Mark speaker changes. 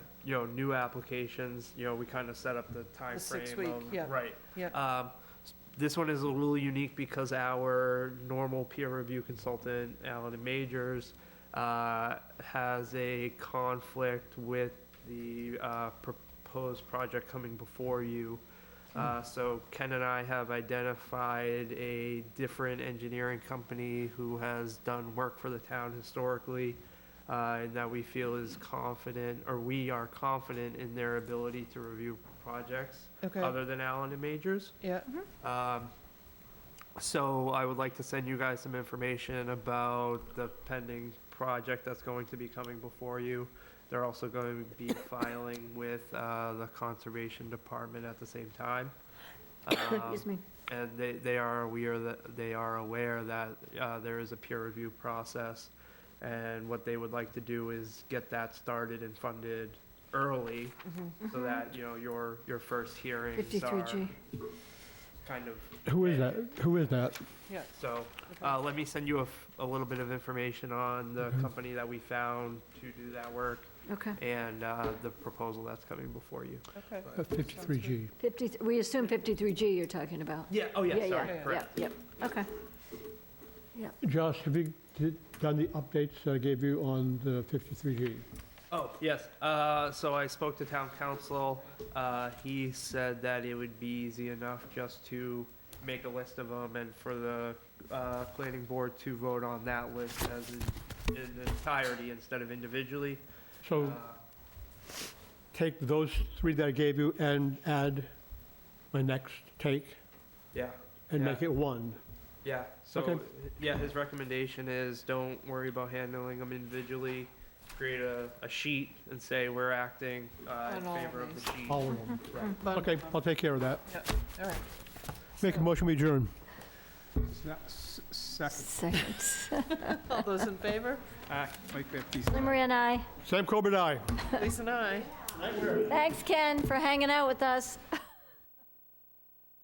Speaker 1: you know, new applications, you know, we kind of set up the time frame
Speaker 2: six-week,
Speaker 1: of-
Speaker 2: yeah.
Speaker 1: Right.
Speaker 2: Yep.
Speaker 1: Um, s- This one is a little unique because our normal peer review consultant, Alan and Majors, uh, has a conflict with the uh, proposed project coming before you.
Speaker 2: Hmm.
Speaker 1: Uh, So Ken and I have identified a different engineering company who has done work for the town historically uh, and that we feel is confident, or we are confident in their ability to review projects
Speaker 2: Okay,
Speaker 1: other than Allen and Majors.
Speaker 2: yeah,
Speaker 1: Um, So I would like to send you guys some information about the pending project that's going to be coming before you. They're also going to be filing with uh, the Conservation Department at the same time. Um,
Speaker 3: Excuse me.
Speaker 1: and they, they are aware that, they are aware that uh, there is a peer review process. And what they would like to do is get that started and funded early
Speaker 3: Mm-hmm.
Speaker 1: so that, you know, your, your first hearings are
Speaker 3: 53G.
Speaker 1: kind of,
Speaker 4: Who is that? Who is that?
Speaker 2: yeah.
Speaker 1: so.
Speaker 2: okay.
Speaker 1: Uh, let me send you a, f- a little bit of information on the company that we found to do that work
Speaker 3: Okay.
Speaker 1: and uh, the proposal that's coming before you.
Speaker 2: Okay.
Speaker 4: Uh, 53G.
Speaker 3: 50, we assume 53G you're talking about.
Speaker 1: Yeah, oh yeah,
Speaker 3: Yeah,
Speaker 1: sorry,
Speaker 2: yeah,
Speaker 1: correct.
Speaker 3: Yeah, yeah, okay.
Speaker 4: Josh, have you did- done the updates that I gave you on the 53G?
Speaker 1: Oh, yes. Uh, so I spoke to town council. Uh, he said that it would be easy enough just to make a list of them and for the, uh, planning board to vote on that list as in, in entirety instead of individually. Uh,
Speaker 4: So take those three that I gave you and add my next take
Speaker 1: Yeah,
Speaker 4: and make it one.
Speaker 1: yeah. So,
Speaker 4: Okay.
Speaker 1: yeah, his recommendation is don't worry about handling them individually. Create a, a sheet and say we're acting, uh, in
Speaker 2: On all
Speaker 1: favor of the
Speaker 2: these.
Speaker 1: sheet.
Speaker 4: All of them.
Speaker 1: Right.
Speaker 2: But-
Speaker 4: Okay, I'll take care of that.
Speaker 2: All right.
Speaker 4: Make a motion, we adjourn.
Speaker 5: Second.
Speaker 3: Second.
Speaker 2: All those in favor?
Speaker 5: Aye, Mike Baptiste.
Speaker 3: Lynn Marie and I.
Speaker 4: Sam Corbett, aye.
Speaker 2: Lisa and I.
Speaker 3: Thanks, Ken, for hanging out with us.